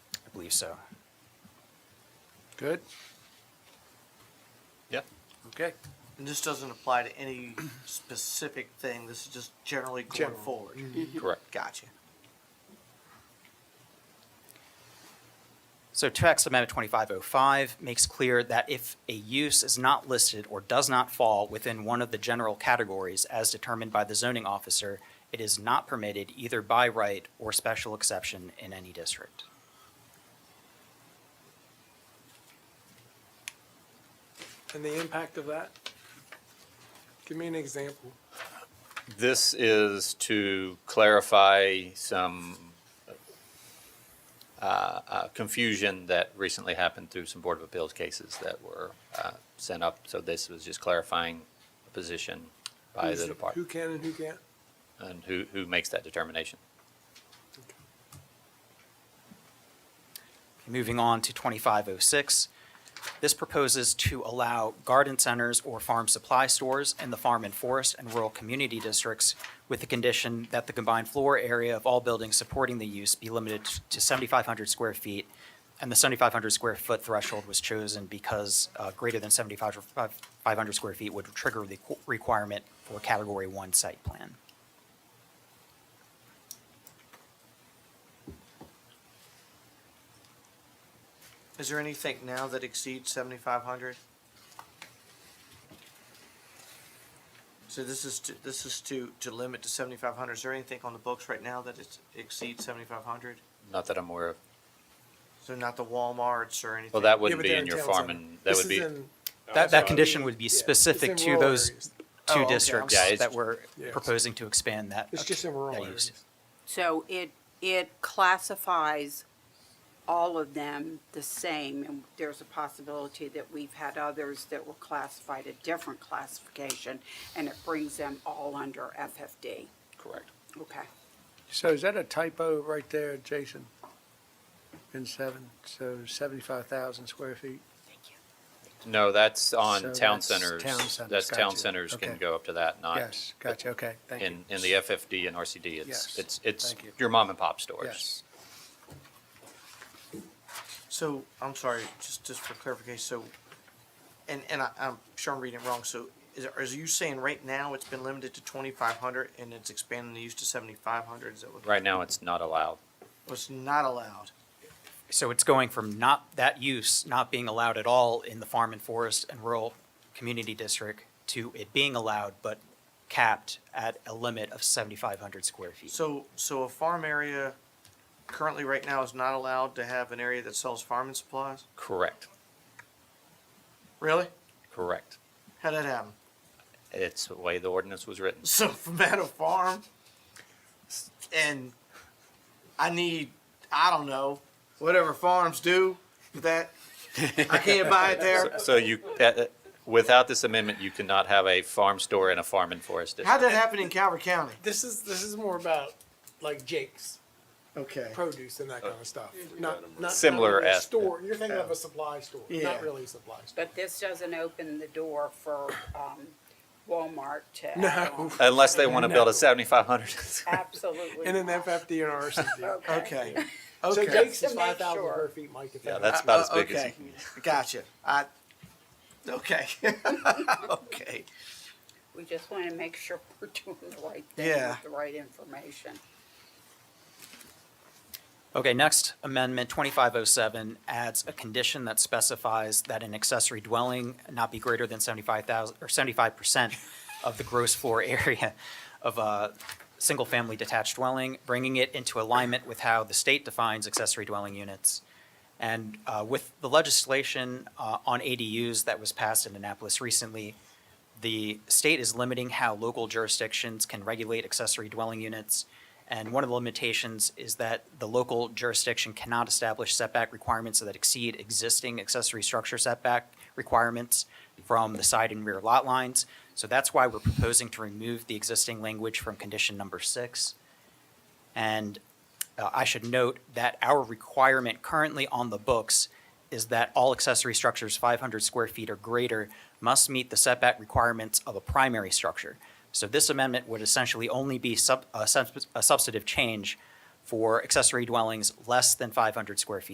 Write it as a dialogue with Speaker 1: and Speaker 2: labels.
Speaker 1: believe so.
Speaker 2: Good?
Speaker 3: Yep.
Speaker 2: Okay.
Speaker 4: And this doesn't apply to any specific thing, this is just generally going
Speaker 2: General.
Speaker 4: forward.
Speaker 3: Correct.
Speaker 4: Gotcha.
Speaker 1: So text amendment 2505 makes clear that if a use is not listed or does not fall within one of the general categories as determined by the zoning officer, it is not permitted either by right or special exception in any district.
Speaker 2: And the impact of that? Give me an example.
Speaker 3: This is to clarify some uh, uh, confusion that recently happened through some Board of Appeals cases that were uh, sent up. So this was just clarifying a position by
Speaker 2: Who's-
Speaker 3: the
Speaker 2: Who
Speaker 3: department
Speaker 2: can and who can't?
Speaker 3: and who, who makes that determination.
Speaker 1: Moving on to 2506, this proposes to allow garden centers or farm supply stores in the farm and forest and rural community districts with the condition that the combined floor area of all buildings supporting the use be limited to 7,500 square feet. And the 7,500 square foot threshold was chosen because uh, greater than 7,500 square feet would trigger the qu- requirement for Category 1 site plan.
Speaker 4: Is there anything now that exceeds seventy-five hundred? So this is to, this is to, to limit to seventy-five hundred, is there anything on the books right now that it's exceeds seventy-five hundred?
Speaker 3: Not that I'm aware of.
Speaker 4: So not the Walmarts or anything?
Speaker 3: Well, that
Speaker 2: Yeah, but
Speaker 3: wouldn't be
Speaker 2: they're
Speaker 3: in your
Speaker 2: town
Speaker 3: farm
Speaker 2: center.
Speaker 3: and that
Speaker 2: This
Speaker 3: would
Speaker 2: is
Speaker 3: be,
Speaker 2: in-
Speaker 1: That, that
Speaker 2: sorry.
Speaker 1: condition would be
Speaker 2: yeah,
Speaker 1: specific
Speaker 2: it's in
Speaker 1: to
Speaker 2: rural
Speaker 1: those
Speaker 2: areas.
Speaker 4: Oh,
Speaker 1: two
Speaker 4: okay, I'm
Speaker 1: districts
Speaker 3: sorry. Yeah, it's-
Speaker 1: that we're
Speaker 2: Yes.
Speaker 1: proposing to expand that.
Speaker 2: It's just in rural
Speaker 1: that
Speaker 2: areas.
Speaker 1: use.
Speaker 5: So it, it classifies all of them the same, and there's a possibility that we've had others that were classified a different classification, and it brings them all under FFD.
Speaker 3: correct.
Speaker 5: Okay.
Speaker 6: So is that a typo right there, Jason? In seven, so seventy-five thousand square feet?
Speaker 3: No, that's on
Speaker 6: So
Speaker 3: town
Speaker 6: that's
Speaker 3: centers.
Speaker 6: town centers,
Speaker 3: That's town
Speaker 6: gotcha.
Speaker 3: centers can
Speaker 6: Okay.
Speaker 3: go up to that, not.
Speaker 6: Yes, gotcha, okay, thank you.
Speaker 3: In, in the FFD and RCD, it's,
Speaker 6: Yes.
Speaker 3: it's, it's
Speaker 6: Thank you.
Speaker 3: your mom and pop stores.
Speaker 6: Yes,
Speaker 4: So, I'm sorry, just, just for clarification, so, and, and I, I'm sure I'm reading it wrong, so is, is you saying right now it's been limited to twenty-five hundred and it's expanding the use to seventy-five hundred, is that what?
Speaker 3: Right now, it's not allowed.
Speaker 4: Was not allowed?
Speaker 1: So it's going from not, that use not being allowed at all in the farm and forest and rural community district to it being allowed, but capped at a limit of 7,500 square feet.
Speaker 4: So, so a farm area currently right now is not allowed to have an area that sells farming supplies?
Speaker 3: Correct,
Speaker 4: Really?
Speaker 3: correct.
Speaker 4: How'd that happen?
Speaker 3: It's the way the ordinance was written.
Speaker 4: So from at a farm and I need, I don't know, whatever farms do with that. I can't buy it there.
Speaker 3: So you, uh, uh, without this amendment, you cannot have a farm store and a farm and forest district.
Speaker 4: How'd that happen in Calvert County?
Speaker 2: This is, this is more about like Jake's
Speaker 4: Okay.
Speaker 2: produce and that kind of stuff. Not, not- not.
Speaker 3: Oh. Similar
Speaker 2: really a
Speaker 3: as-
Speaker 2: Store, you're thinking of a supply store,
Speaker 4: Yeah.
Speaker 2: not really a supply store.
Speaker 5: But this doesn't open the door for um, Walmart to.
Speaker 2: No.
Speaker 3: Unless they want to build a seventy-five hundred.
Speaker 5: Absolutely.
Speaker 2: In an
Speaker 5: not.
Speaker 2: FFD and RCD.
Speaker 4: Okay.
Speaker 2: So
Speaker 4: Okay. Uh,
Speaker 2: Jake's
Speaker 5: Just
Speaker 2: is
Speaker 5: to make
Speaker 2: five thousand
Speaker 5: sure.
Speaker 2: square feet, Mike. if
Speaker 3: Yeah,
Speaker 2: that
Speaker 3: that's
Speaker 2: helps.
Speaker 3: about as big as you
Speaker 4: Okay.
Speaker 3: can get.
Speaker 4: Gotcha. I, okay. Okay.
Speaker 5: We just want to make sure we're doing the right thing
Speaker 4: Yeah.
Speaker 5: with the right information.
Speaker 1: Okay, next amendment, 2507 adds a condition that specifies that an accessory dwelling not be greater than 75,000, or 75% of the gross floor area of a single-family detached dwelling, bringing it into alignment with how the state defines accessory dwelling units. And uh, with the legislation uh, on ADUs that was passed in Annapolis recently, the state is limiting how local jurisdictions can regulate accessory dwelling units. And one of the limitations is that the local jurisdiction cannot establish setback requirements that exceed existing accessory structure setback requirements from the side and rear lot lines. So that's why we're proposing to remove the existing language from condition number six. And uh, I should note that our requirement currently on the books is that all accessory structures 500 square feet or greater must meet the setback requirements of a primary structure. So this amendment would essentially only be sub- a subs- a substantive change for accessory dwellings less than 500 square feet